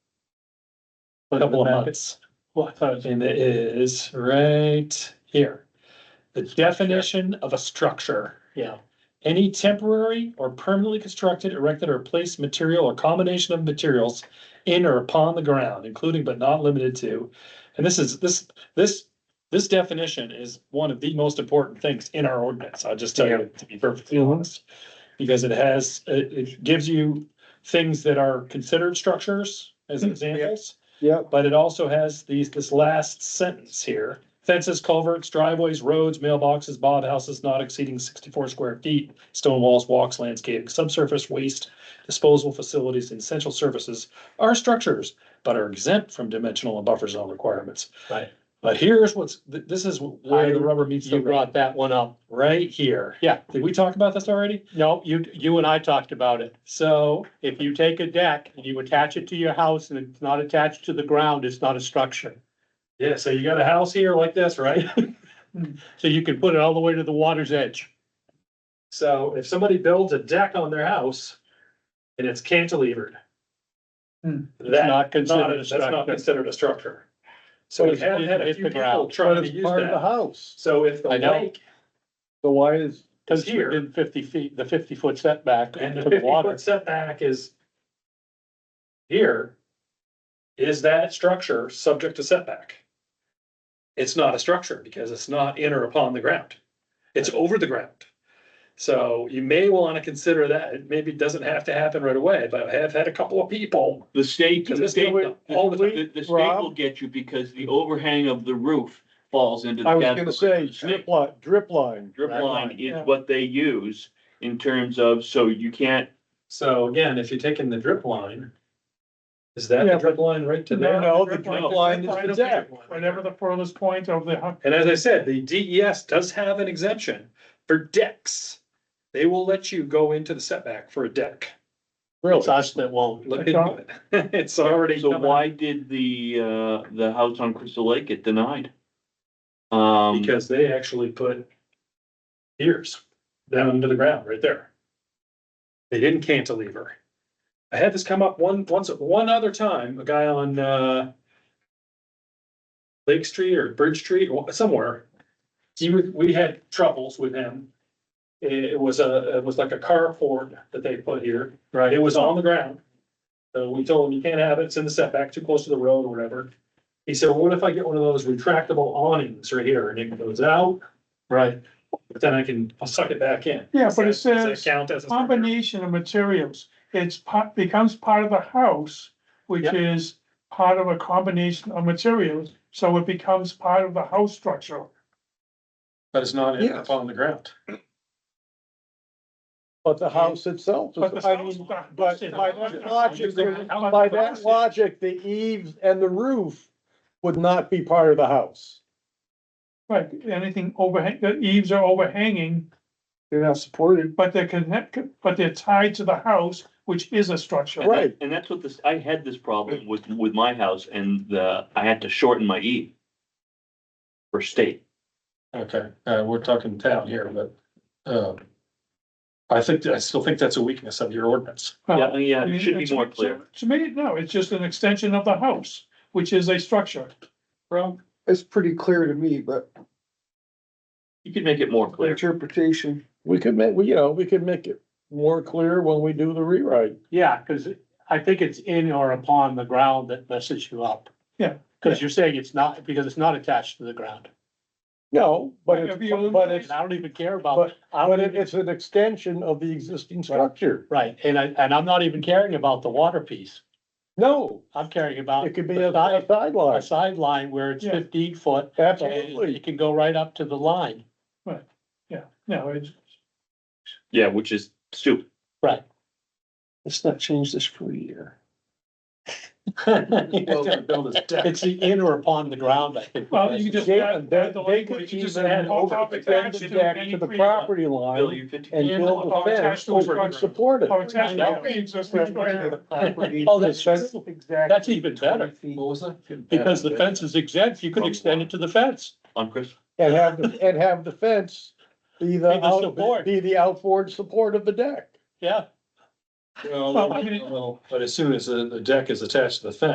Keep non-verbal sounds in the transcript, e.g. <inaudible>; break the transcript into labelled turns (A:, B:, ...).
A: But
B: Couple of
A: that-
B: months.
A: Well, I thought, it was-
B: And it is right here. The definition of a structure.
A: yeah,
B: Any temporary or permanently constructed, erected, or placed material or combination of materials in or upon the ground, including but not limited to. And this is, this, this, this definition is one of the most important things in our ordinance. I'll just tell you, to be perfectly honest. Because it has, it, it gives you things that are considered structures as examples.
C: Yeah,
B: But it also has these, this last sentence here. Fences, culverts, driveways, roads, mailboxes, bob houses not exceeding sixty-four square feet, stone walls, walks, landscaping, subsurface waste, disposal facilities, and essential services are structures, but are exempt from dimensional and buffer zone requirements.
A: Right.
B: But here's what's, th- this is where the rubber meets the
A: you
B: road,
A: brought that one up.
B: right here.
A: Yeah.
B: Did we talk about this already?
A: No, you, you and I talked about it.
B: So,
A: If you take a deck and you attach it to your house and it's not attached to the ground, it's not a structure.
B: yeah, so you got a house here like this, right? <laughs>
A: Hmm. So you can put it all the way to the water's edge.
B: So if somebody builds a deck on their house and it's cantilevered.
C: Hmm.
A: It's
B: That,
A: not considered a
B: that's not
A: structure.
B: considered a structure. So we have had a
A: It's the
B: few people
A: ground.
B: trying to
C: it's
B: use
C: part of the
B: that.
C: house.
B: So if the
A: I know.
B: lake
C: So why is,
A: Cause
B: Here.
A: you're in fifty feet, the fifty foot setback
B: and
A: to
B: the
A: the
B: fifty
A: water.
B: foot setback is. Here. Is that structure subject to setback? It's not a structure because it's not in or upon the ground. It's over the ground. So you may want to consider that. It maybe doesn't have to happen right away, but I have had a couple of people.
D: The state,
B: Because
D: the
B: it's
D: state,
B: nowhere-
D: the,
B: all the time.
D: the the state will get you because the overhang of the roof falls into. the
C: I was
D: category
C: gonna
D: of
C: say
D: the state.
C: drip line, drip line.
D: Drip
A: Right.
D: line
C: Yeah.
D: is what they use in terms of, so you can't,
B: So again, if you're taking the drip line. Is that
C: Yeah,
B: the
C: but-
B: drip line right to
C: No, no,
B: there?
C: the
D: line-
C: drip line is the deck.
B: Whatever the-
C: furthest point of the house.
B: And as I said, the DES does have an exemption for decks. They will let you go into the setback for a deck.
A: It's us that won't.
B: Look into it. <laughs> It's already.
D: so
B: coming.
D: why did the, uh, the house on Crystal Lake get denied? Um,
B: Because they actually put ears down into the ground right there. They didn't cantilever. I had this come up one, once, one other time, a guy on, uh, Lake Street or Bridge Street, or somewhere. He, was- we had troubles with him. It was a, it was like a carport that they put here.
A: Right.
B: It was on the ground. So we told him, you can't have it, it's in the setback, too close to the road or whatever. He said, well, what if I get one of those retractable awnings right here and it goes out,
A: Right.
B: but then I can suck it back in?
E: Yeah,
B: Does
E: but it
B: that- does that
E: says
B: Count as a. structure?
E: combination of materials, it's part, becomes part of the house, which
B: Yep.
E: is part of a combination of materials, so it becomes part of the house structure.
B: But it's not
C: Yes.
B: upon the ground.
C: But the house itself
E: But
C: is,
E: the
C: I
E: house-
C: mean,
E: the house
C: but
E: is-
C: by that logic, by that
E: But
C: logic, the eaves and the roof would not be part of the house.
E: Right, anything overhang, the eaves are overhanging,
C: They're not supported.
E: but they're connected, but they're tied to the house, which is a structure.
D: and that-
C: right.
D: And that's what this, I had this problem with, with my house and the, I had to shorten my E. For state.
B: Okay, uh, we're talking town here, but, um, I think, I still think that's a weakness of your ordinance.
E: Well,
D: Yeah, yeah, it should be
E: to-
D: more
E: to-
D: clear.
E: To me, no, it's just an extension of the house, which is a structure.
F: It's pretty clear to me, but
D: You could make it more clear.
F: interpretation,
C: We could make, we, you know, we could make it more clear when we do the rewrite.
A: Yeah, cause I think it's in or upon the ground that messes you up.
E: Yeah.
A: Cause you're saying it's not, because it's not attached to the ground.
C: No, but it's,
E: If you-
C: but it's,
A: And I don't even care about,
C: but,
A: I
C: but
A: don't
C: it-
A: even,
C: it's an extension of the existing structure.
A: right, and I, and I'm not even caring about the water piece.
C: No,
A: I'm caring about.
C: it could be
A: the
C: a a
A: side- A
C: sideline,
A: sideline where it's
E: Yeah.
A: fifteen foot, and
C: absolutely.
A: it can go right up to the line. <laughs>
E: Yeah, no, it's,
D: Yeah, which is stupid.
F: let's not change this for a year.
A: <laughs>
F: <laughs>
A: It's the in or upon the ground, I think.
E: Well, you just.
C: Yeah,
E: add-
C: they,
E: add the
C: they
E: language,
C: could
E: you just
C: even
E: add on top of that
C: overextend the deck to the
E: any
C: property
D: Bill,
C: line
D: you fifty.
C: and build a
E: Or
C: fence
E: attached to
C: over
E: structure.
C: to support it.
E: Or attached to any existing structure.
A: Oh, that's,
C: Fence-
A: that's even better,
F: was that?
A: because the fence is exempt, you could extend it to the fence.
D: On Chris,
C: And have, the- and have the fence be
A: Be
C: the,
A: the support.
C: out- be the outboard support of the deck.
A: Yeah,
E: Well, I mean-
B: Well, but as soon as the, the deck is attached to the fence.